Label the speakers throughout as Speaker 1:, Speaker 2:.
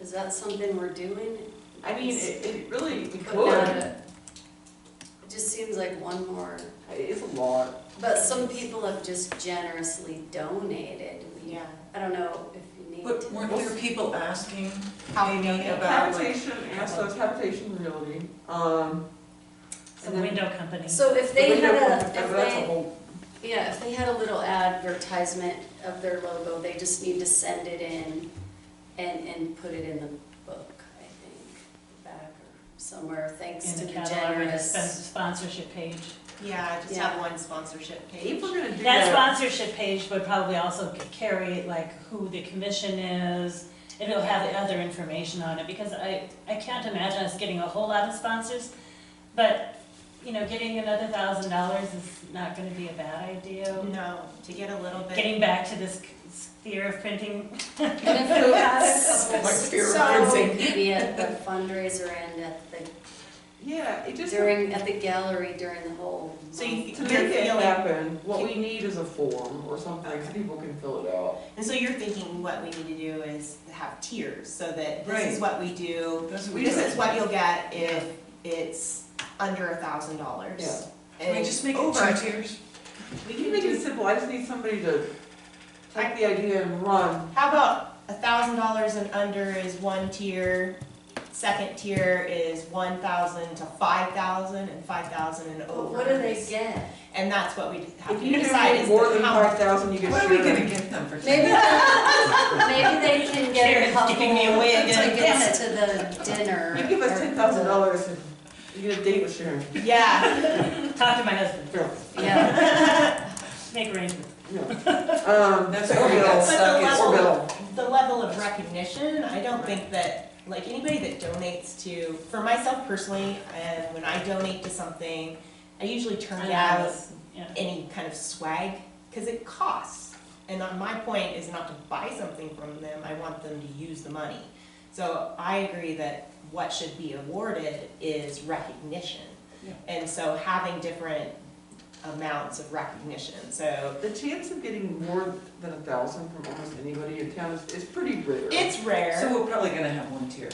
Speaker 1: Is that something we're doing?
Speaker 2: I mean, it, it really, we
Speaker 1: But not
Speaker 2: could,
Speaker 1: a- It just seems like one more,
Speaker 2: it's a lot.
Speaker 1: but some people have just generously donated. We-
Speaker 3: Yeah.
Speaker 1: I don't know if you need
Speaker 4: But weren't
Speaker 1: to.
Speaker 4: there people asking
Speaker 3: How
Speaker 4: maybe
Speaker 3: many
Speaker 4: about like?
Speaker 2: Habitation, yeah, so it's habitation realty, um.
Speaker 5: The window company.
Speaker 1: So if they had a,
Speaker 2: That's
Speaker 1: if
Speaker 2: a
Speaker 1: they,
Speaker 2: whole,
Speaker 1: yeah, if they had a little advertisement of their logo, they just need to send it in and, and put it in the book, I think, back or somewhere, thanks to
Speaker 5: In
Speaker 1: the
Speaker 5: the catalog or the
Speaker 1: generous.
Speaker 5: spons- sponsorship page.
Speaker 3: Yeah, I just
Speaker 1: Yeah.
Speaker 3: have one sponsorship page.
Speaker 2: people are gonna do
Speaker 5: That
Speaker 2: that.
Speaker 5: sponsorship page would probably also c- carry like who the commission is, and it'll have the other information on it, because I, I can't imagine us getting a whole lot of sponsors, but, you know, getting another thousand dollars is not gonna be a bad idea.
Speaker 3: No, to get a little bit.
Speaker 5: Getting back to this c- sphere of printing.
Speaker 1: And if we had a couple
Speaker 4: Like fear of
Speaker 1: songs,
Speaker 4: printing.
Speaker 1: it could be at the fundraiser and at the
Speaker 2: Yeah, it just, to
Speaker 1: During, at the gallery during the whole.
Speaker 3: So you-
Speaker 2: make
Speaker 3: You're
Speaker 2: it
Speaker 3: feeling-
Speaker 2: happen, what we need is a form or something, so
Speaker 3: Okay.
Speaker 2: people can fill it out.
Speaker 3: And so you're thinking what we need to do is have tiers, so that this
Speaker 4: Right.
Speaker 3: is what we do.
Speaker 4: That's what we
Speaker 3: This
Speaker 4: do.
Speaker 3: is what you'll get if it's under a thousand dollars.
Speaker 4: Can we
Speaker 3: And
Speaker 4: just make it
Speaker 3: over-
Speaker 4: two tiers?
Speaker 3: We
Speaker 2: You
Speaker 3: can
Speaker 2: make
Speaker 3: do
Speaker 2: it simple, I just need somebody to take the idea and run.
Speaker 3: How about a thousand dollars and under is one tier, second tier is one thousand to five thousand, and five thousand and over.
Speaker 1: What do they
Speaker 3: is-
Speaker 1: get?
Speaker 3: And that's what we have
Speaker 2: If
Speaker 3: to
Speaker 2: you
Speaker 3: decide
Speaker 2: make
Speaker 3: is
Speaker 2: more than
Speaker 3: the how
Speaker 2: five
Speaker 3: much.
Speaker 2: thousand, you get
Speaker 4: What are we
Speaker 2: shared.
Speaker 4: gonna give them for?
Speaker 1: Maybe,
Speaker 4: tiers?
Speaker 1: maybe they can get a
Speaker 5: Karen's
Speaker 1: couple
Speaker 5: giving me away again.
Speaker 1: tickets to the dinner.
Speaker 2: You give us
Speaker 1: or
Speaker 2: ten thousand dollars and you get a date with Sharon.
Speaker 3: Yeah,
Speaker 5: Talk to my husband,
Speaker 2: Yeah,
Speaker 1: the- Yeah,
Speaker 5: make arrangements.
Speaker 2: yeah. Um,
Speaker 4: That's
Speaker 2: or
Speaker 4: where we got
Speaker 2: Bill.
Speaker 4: stuck is.
Speaker 2: Or
Speaker 3: level-
Speaker 2: Bill.
Speaker 3: the level of recognition, I don't think that, like, anybody that donates to, for myself personally, and when I donate to something, I usually turn out
Speaker 5: Anonymous, yeah.
Speaker 3: any kind of swag, because it costs. And uh, my point is not to buy something from them, I want them to use the money. So I agree that what should be awarded is recognition.
Speaker 4: Yeah.
Speaker 3: And so having different amounts of recognition, so
Speaker 2: The chance of getting more than a thousand from almost anybody in town is, is pretty rare.
Speaker 3: it's
Speaker 4: So
Speaker 3: rare.
Speaker 4: we're probably gonna have one tier.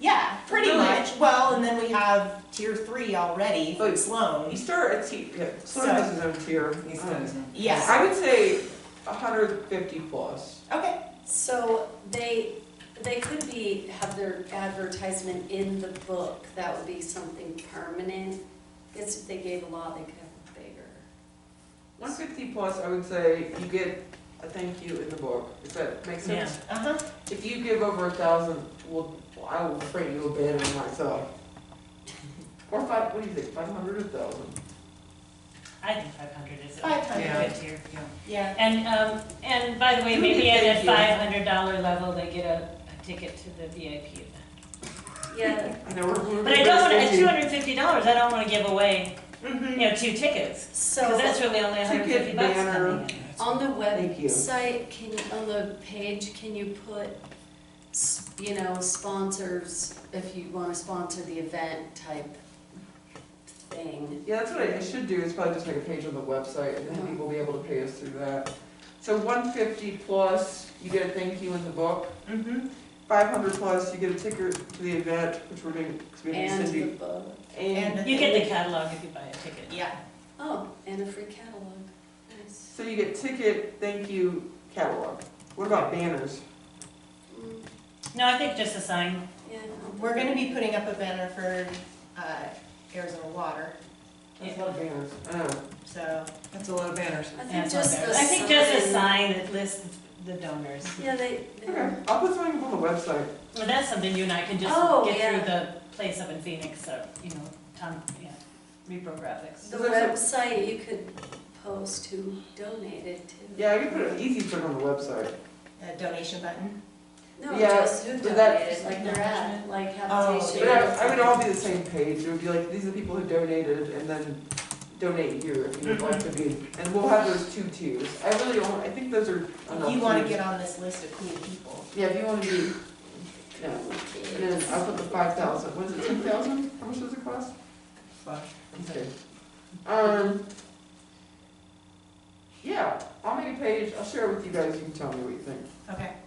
Speaker 3: Yeah, pretty
Speaker 2: Really?
Speaker 3: much. Well, and then we have tier three already
Speaker 2: Oh,
Speaker 3: for
Speaker 2: you-
Speaker 3: Sloan.
Speaker 2: You start at tier, yeah, Sloan has his own tier.
Speaker 4: He's
Speaker 2: Um,
Speaker 4: done his own.
Speaker 3: Yes,
Speaker 2: I would say a hundred fifty plus.
Speaker 3: okay.
Speaker 1: so they, they could be, have their advertisement in the book, that would be something permanent. Guess if they gave a lot, they could have bigger.
Speaker 2: One fifty plus, I would say you get a thank you in the book, if that makes
Speaker 5: Yeah.
Speaker 2: sense.
Speaker 3: Uh-huh.
Speaker 2: If you give over a thousand, well, I will afraid you abandon myself. Or five, what do you think, five hundred, a thousand?
Speaker 5: I think five hundred is a
Speaker 3: Five
Speaker 4: Yeah.
Speaker 3: hundred,
Speaker 5: good tier.
Speaker 3: yeah.
Speaker 5: And, um, and by the way,
Speaker 2: Who
Speaker 5: maybe
Speaker 2: did
Speaker 5: at
Speaker 2: they
Speaker 5: a
Speaker 2: do?
Speaker 5: five hundred dollar level, they get a, a ticket to the VIP event.
Speaker 1: Yeah,
Speaker 2: I know we're- we're.
Speaker 5: But I don't wanna, at
Speaker 2: basically-
Speaker 5: two hundred fifty dollars, I don't wanna give away, you
Speaker 3: Mhm.
Speaker 5: know, two tickets, cause
Speaker 1: so
Speaker 5: that's really only a hundred fifty
Speaker 2: Ticket,
Speaker 5: bucks
Speaker 2: banner.
Speaker 5: coming in.
Speaker 1: on the
Speaker 2: Thank you.
Speaker 1: website, can, on the page, can you put, s- you know, sponsors, if you wanna sponsor the event type thing?
Speaker 2: Yeah, that's what I I should do, is probably just make a page on the website, and then people will be able to pay us through that. So one fifty plus, you get a thank you in the book,
Speaker 3: Mhm.
Speaker 5: Mm-hmm.
Speaker 2: five hundred plus, you get a ticket to the event, which we're doing, because we have
Speaker 1: And the
Speaker 2: Cindy.
Speaker 1: book,
Speaker 2: And,
Speaker 3: And
Speaker 5: You get the catalog if you buy a ticket.
Speaker 3: Yeah.
Speaker 1: oh, and a free catalog, nice.
Speaker 2: so you get ticket, thank you, catalog. What about banners?
Speaker 1: Mm,
Speaker 5: No, I think just a sign,
Speaker 1: Yeah.
Speaker 3: We're gonna be putting up a banner for uh, Arizona Water,
Speaker 2: That's a lot of banners. I know.
Speaker 3: so,
Speaker 4: That's a lot of banners.
Speaker 1: I
Speaker 5: yeah,
Speaker 1: think
Speaker 5: it's not
Speaker 1: just
Speaker 5: bad.
Speaker 1: the
Speaker 5: I think just a
Speaker 1: sign.
Speaker 5: sign that lists the donors.
Speaker 1: Yeah, they,
Speaker 2: Oh, Okay,
Speaker 1: they're-
Speaker 2: I'll put something up on the website.
Speaker 5: Well, that's something you and I can just
Speaker 1: Oh,
Speaker 5: get
Speaker 1: yeah.
Speaker 5: through the place up in Phoenix, so, you know, Tom, yeah, Repro Graphics.
Speaker 1: the
Speaker 2: Is there
Speaker 1: website, you could post who donated to.
Speaker 2: Yeah, I can put an easy thing on the website.
Speaker 3: a donation button.
Speaker 1: No,
Speaker 2: Yeah,
Speaker 1: just who
Speaker 2: but that-
Speaker 1: donated, like their ad, like
Speaker 3: Oh,
Speaker 1: habitation.
Speaker 2: But I, I would all be the same page, it would be like, these are the people who donated, and then donate here if you'd like to be. And we'll have those two tiers. I really don't, I think those are enough.
Speaker 3: You wanna
Speaker 2: tiers.
Speaker 3: get on this list of cool people.
Speaker 2: Yeah, if you wanna be, yeah, and then I'll put the five thousand, was it ten thousand? How much does it cost? Okay. Um, yeah, I'll make a page, I'll share it with you guys, you can tell me what you think.
Speaker 3: Okay.